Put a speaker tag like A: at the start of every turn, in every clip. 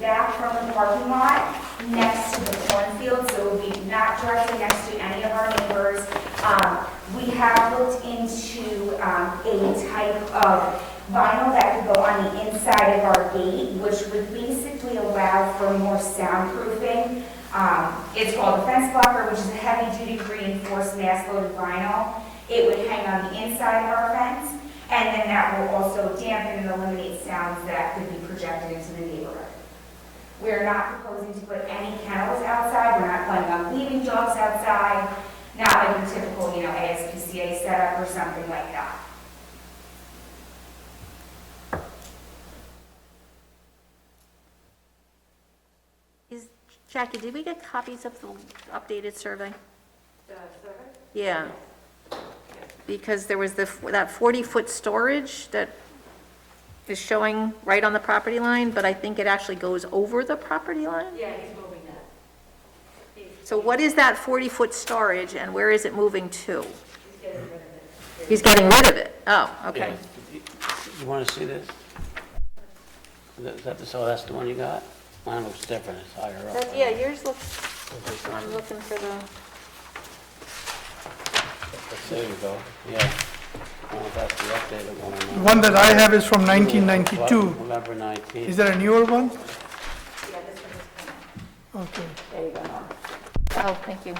A: back from the parking lot next to the cornfield, so it would be not directly next to any of our neighbors. Um, We have looked into um, a type of vinyl that could go on the inside of our gate, which would basically allow for more soundproofing. Um, It's called a fence blocker, which is a heavy-duty reinforced mass-loaded vinyl. It would hang on the inside of our fence, and then that will also dampen and eliminate sounds that could be projected into the neighborhood. We're not proposing to put any kennels outside, we're not planning on leaving dogs outside, not like your typical, you know, ASPCA setup or something like that.
B: Is, Jackie, did we get copies of the updated survey? Yeah. Because there was the, that 40-foot storage that is showing right on the property line, but I think it actually goes over the property line?
C: Yeah, he's moving that.
B: So what is that 40-foot storage and where is it moving to?
C: He's getting rid of it.
B: He's getting rid of it? Oh, okay.
D: You want to see this? That, that- so that's the one you got? Mine looks different, it's higher up.
B: That- Yeah, yours looks,
D: This one.
B: I'm looking for the,
D: There you go, yeah. I don't know if that's the updated one or
E: The
D: not.
E: One that I have is from 1992.
D: November
E: Is
D: 19th.
E: there a newer one? Okay,
B: oh, thank you.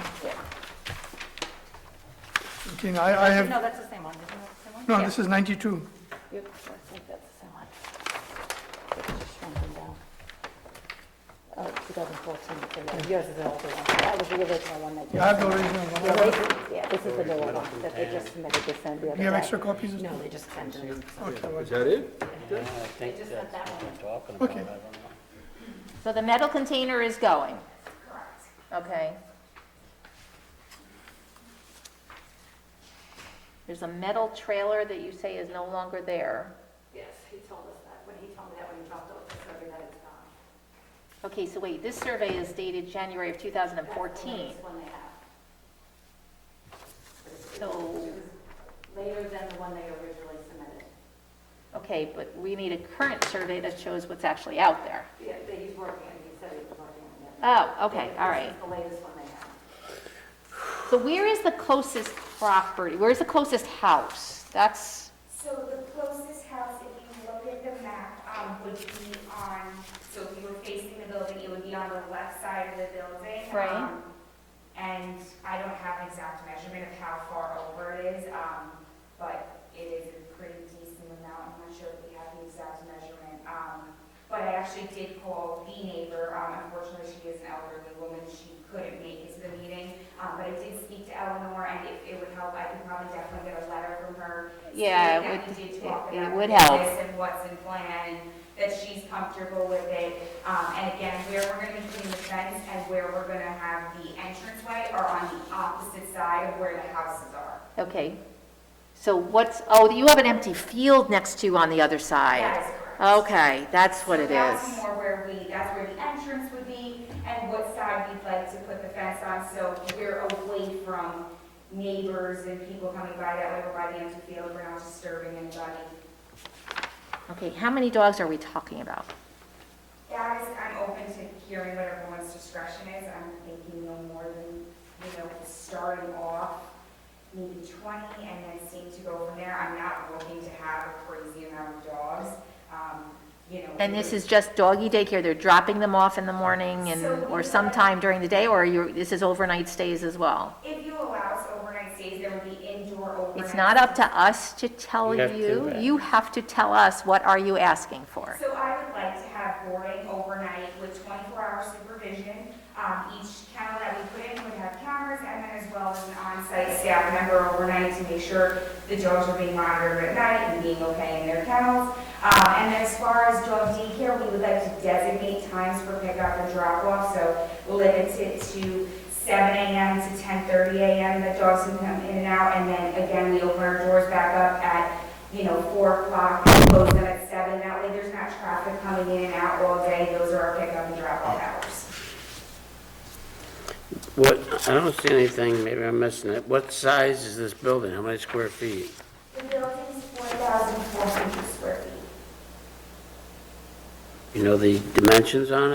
E: okay, I, I have,
C: No, that's the same one, isn't that the same one?
E: no, this is 92.
C: Yep, I think that's the same one. It's just shrunken down. Oh, 2014, so yeah, yours is the older one. That was the original one that you...
E: I have the original one.
C: Yeah, they- Yeah, this is the newer one that they just submitted, they sent the other day.
E: Do you have extra copies?
C: No, they just sent it.
F: Is that it?
D: Yeah, I think that's what I'm talking about, I
E: Okay.
D: don't know.
B: So the metal container is going?
A: Correct.
B: Okay. There's a metal trailer that you say is no longer there.
C: Yes, he told us that, when he told me that when he dropped off the survey that it's gone.
B: Okay, so wait, this survey is dated January of 2014.
C: That's the latest one they have,
B: So,
C: later than the one they originally submitted.
B: okay, but we need a current survey that shows what's actually out there.
C: Yeah, that he's working, and he said he was working on it.
B: Oh, okay, all right.
C: This is the latest one they have.
B: So where is the closest property, where's the closest house? That's,
A: So the closest house, if you look at the map, um, would be on, so if you were facing the building, it would be on the left side of the building.
B: Right.
A: um, And I don't have an exact measurement of how far over it is, um, but it is a pretty decent amount. I'm not sure if we have the exact measurement. Um, but I actually did call the neighbor, um, unfortunately she is an elderly woman, she couldn't make it to the meeting. Um, but I did speak to Eleanor and if it would help, I could probably definitely get a letter from her
B: Yeah, it
A: that
B: would-
A: we did
B: it-
A: talk
B: it
A: about
B: would
A: this
B: help.
A: And what's in plan, and that she's comfortable with it. Um, and again, where we're gonna be putting the fence and where we're gonna have the entranceway are on the opposite side of where the houses are.
B: okay. So what's, oh, you have an empty field next to you on the other
A: That
B: side.
A: is correct.
B: Okay, that's what
A: So
B: it
A: That's
B: is.
A: more where we, that's where the entrance would be and what side we'd like to put the fence on, so we're away from neighbors and people coming by that way, we're by the empty field, we're not disturbing anybody.
B: Okay, how many dogs are we talking about?
A: Guys, I'm open to hearing what everyone's discretion is, I'm thinking no more than, you know, starting off maybe twenty and then seem to go from there, I'm not looking to have a crazy amount of dogs, um, you know.
B: And this is just doggy daycare, they're dropping them off in the morning and,
A: So we
B: or
A: have-
B: sometime during the day, or you, this is overnight stays as well?
A: If you allow us overnight stays, there would be indoor overnight.
B: It's not up to us to tell
D: You have to
B: you,
D: do that.
B: you have to tell us, what are you asking for?
A: So I would like to have boarding overnight with twenty-four hour supervision. Um, each kennel that we put in would have cameras and then as well as an on-site staff member overnight to make sure the dogs are being monitored at night and being okay in their kennels. Um, and then as far as dog daycare, we would like to designate times for pickup and drop-off, so limit it to seven AM to ten thirty AM that dogs can come in and out. And then again, we open our doors back up at you know, four o'clock, we close them at seven, that way there's not traffic coming in and out all day, those are our pickup and drop off hours.
D: What, I don't see anything, maybe I'm missing it. What size is this building? How many square feet?
A: The building's four thousand four hundred square feet.
D: You know the dimensions on it?